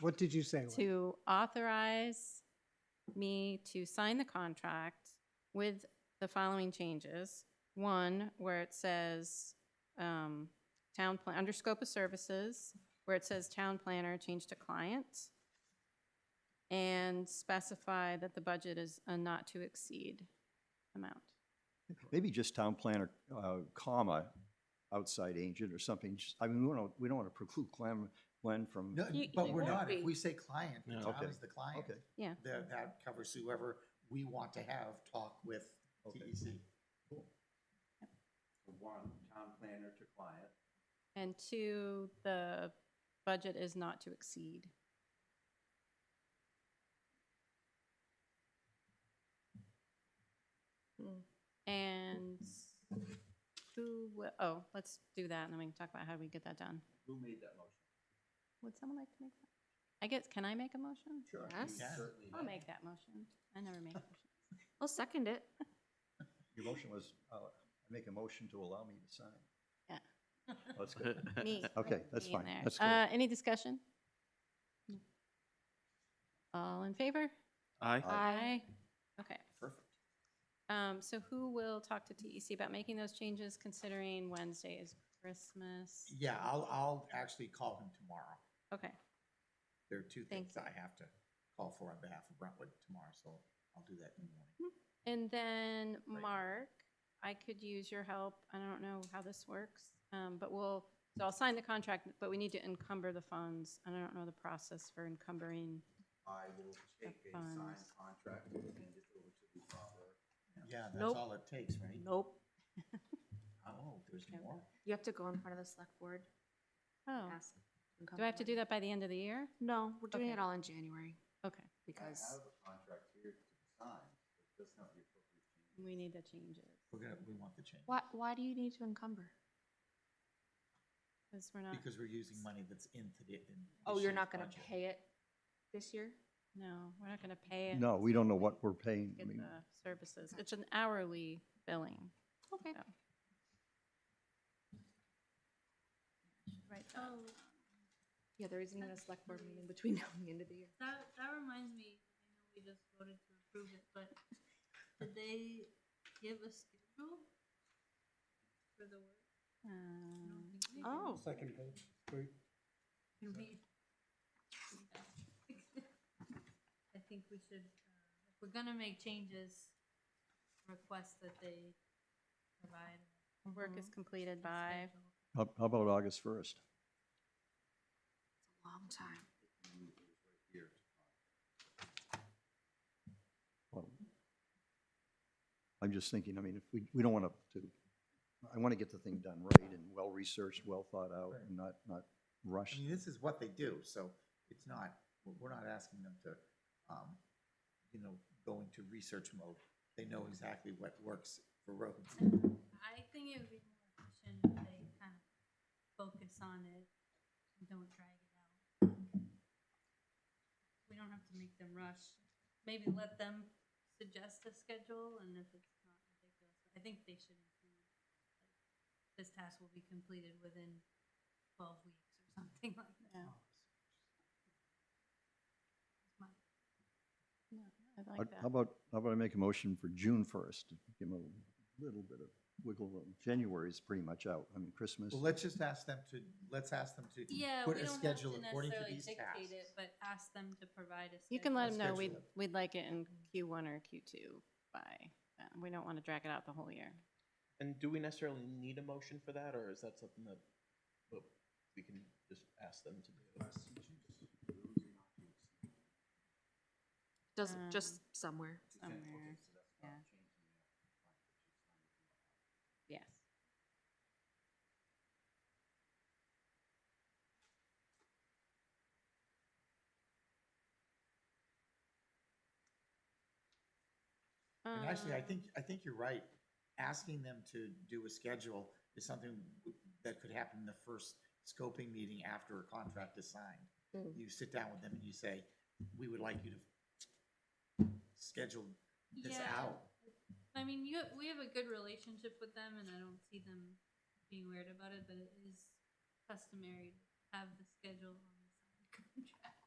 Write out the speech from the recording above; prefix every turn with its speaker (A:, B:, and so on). A: What did you say? Lynn?
B: to authorize me to sign the contract with the following changes. One, where it says, um, town plan, under scope of services, where it says town planner, change to client. And specify that the budget is a not to exceed amount.
C: Maybe just town planner, uh, comma, outside agent or something. Just- I mean, we don't, we don't want to preclude Glenn, Glenn from,
D: No,
B: You-
D: but
B: you
D: we're
B: won't
D: not, if
B: be.
D: we say client,
E: No.
D: Tom
C: Okay.
D: is the client.
C: Okay.
B: Yeah.
D: That, that covers whoever we want to have talk with E
C: Okay.
D: TEC.
F: One, town planner to client.
B: And two, the budget is not to exceed. And who, wi- oh, let's do that, and then we can talk about how we get that done.
F: Who made that motion?
B: Would someone like to make that? I guess, can I make a motion?
D: Sure. you
F: You
G: Yes.
D: can.
F: certainly
B: I'll
F: may.
B: make that motion. I never make motions.
G: I'll second it.
C: your motion was, uh, make a motion to allow me to sign.
B: Yeah.
C: That's good.
B: Me.
C: Okay,
B: like
C: that's
B: me in
C: fine.
B: there.
C: That's cool.
B: Uh, any discussion? No. All in favor?
E: Aye.
B: Aye. Okay.
F: Perfect.
B: Um, so who will talk to TEC about making those changes considering Wednesday is Christmas?
D: Yeah, I'll, I'll actually call him tomorrow.
B: Okay,
D: There are two
B: Thank
D: things I have to call for on behalf of Brentwood tomorrow, so I'll do that in the morning.
B: and then
D: Right.
B: Mark, I could use your help. I don't know how this works. Um, but we'll, so I'll sign the contract, but we need to encumber the funds. And I don't know the process for encumbering.
F: I will take a signed
B: funds.
F: contract and hand it over to the proper.
D: Yeah, that's
G: Nope.
D: all it takes, right?
G: Nope.
D: Oh, there's
B: Okay.
D: more?
G: You have to go in front of the select board.
B: Oh,
G: ask them
B: do I have to do
G: come
B: that by the end of the year?
G: in. No, we're doing
B: Okay.
G: it all in January
B: Okay,
F: I
G: because
F: have a contract here to sign, but that's not the appropriate change.
B: we need to change it
D: We're gonna, we want the change.
G: why, why do you need to encumber?
B: because we're not,
D: Because we're using money that's in today, in.
G: Oh,
D: this
G: you're
D: year's
G: not gonna
D: budget.
G: pay it this year?
B: no, we're not going to pay it.
C: No, we don't know what we're paying. I
B: Uh, Get
C: mean,
B: the services. It's an hourly billing.
G: Okay.
B: Yeah. Right.
H: Oh,
G: Yeah, there isn't even a select board meeting between now and the end of the year.
H: that, that reminds me, I know we just voted to approve it, but did they give a schedule for the work? I don't
B: Um,
H: think they did.
G: Oh.
A: Second page, three.
H: I mean, I think we should, uh, if we're gonna make changes, request that they provide.
B: Work is completed by,
H: schedule.
C: How how about August 1st?
G: It's a long time.
C: Well, I'm just thinking, I mean, if we, we don't want to, I want to get the thing done right and well-researched, well thought out,
D: Right.
C: and not, not
D: I
C: rushed.
D: mean, this is what they do, so it's not, we're- we're not asking them to, um, you know, go into research mode. They know exactly what works for roads.
H: I think it would be more efficient if they kind of focus on it and don't drag it out. We don't have to make them rush. Maybe let them suggest a schedule and if it's not ridiculous, I think they should include, like, this task will be completed within twelve weeks or something like that. My-
B: I
C: How
B: like
C: how
B: that.
C: about, how about I make a motion for June 1st? Give them a little bit of wiggle room. January is pretty much out. I mean, Christmas.
D: Well, let's just ask them to, let's ask them to
H: Yeah,
D: put
H: we
D: a
H: don't have to
D: schedule according to
H: necessarily
D: these
H: dictate it,
D: tasks.
H: but ask them to provide a schedule.
B: You can let
D: Let's
B: them know we'd,
D: schedule it.
B: we'd like it in Q1 or Q2 by, then. we don't want to drag it out the whole year.
E: And do we necessarily need a motion for that, or is that something that well, we can just ask them to do?
G: Doesn't, just
B: Um,
G: somewhere.
B: Somewhere, yeah. Yes.
D: And actually, I
B: Um,
D: think, I think you're right. Asking them to do a schedule is something that could happen in the first scoping meeting after a contract is signed.
G: Mm.
D: You sit down with them and you say, we would like you to schedule this
H: Yeah.
D: out.
H: I mean, you we have a good relationship with them, and I don't see them being weird about it. But it is customary to have the schedule on the signed contract.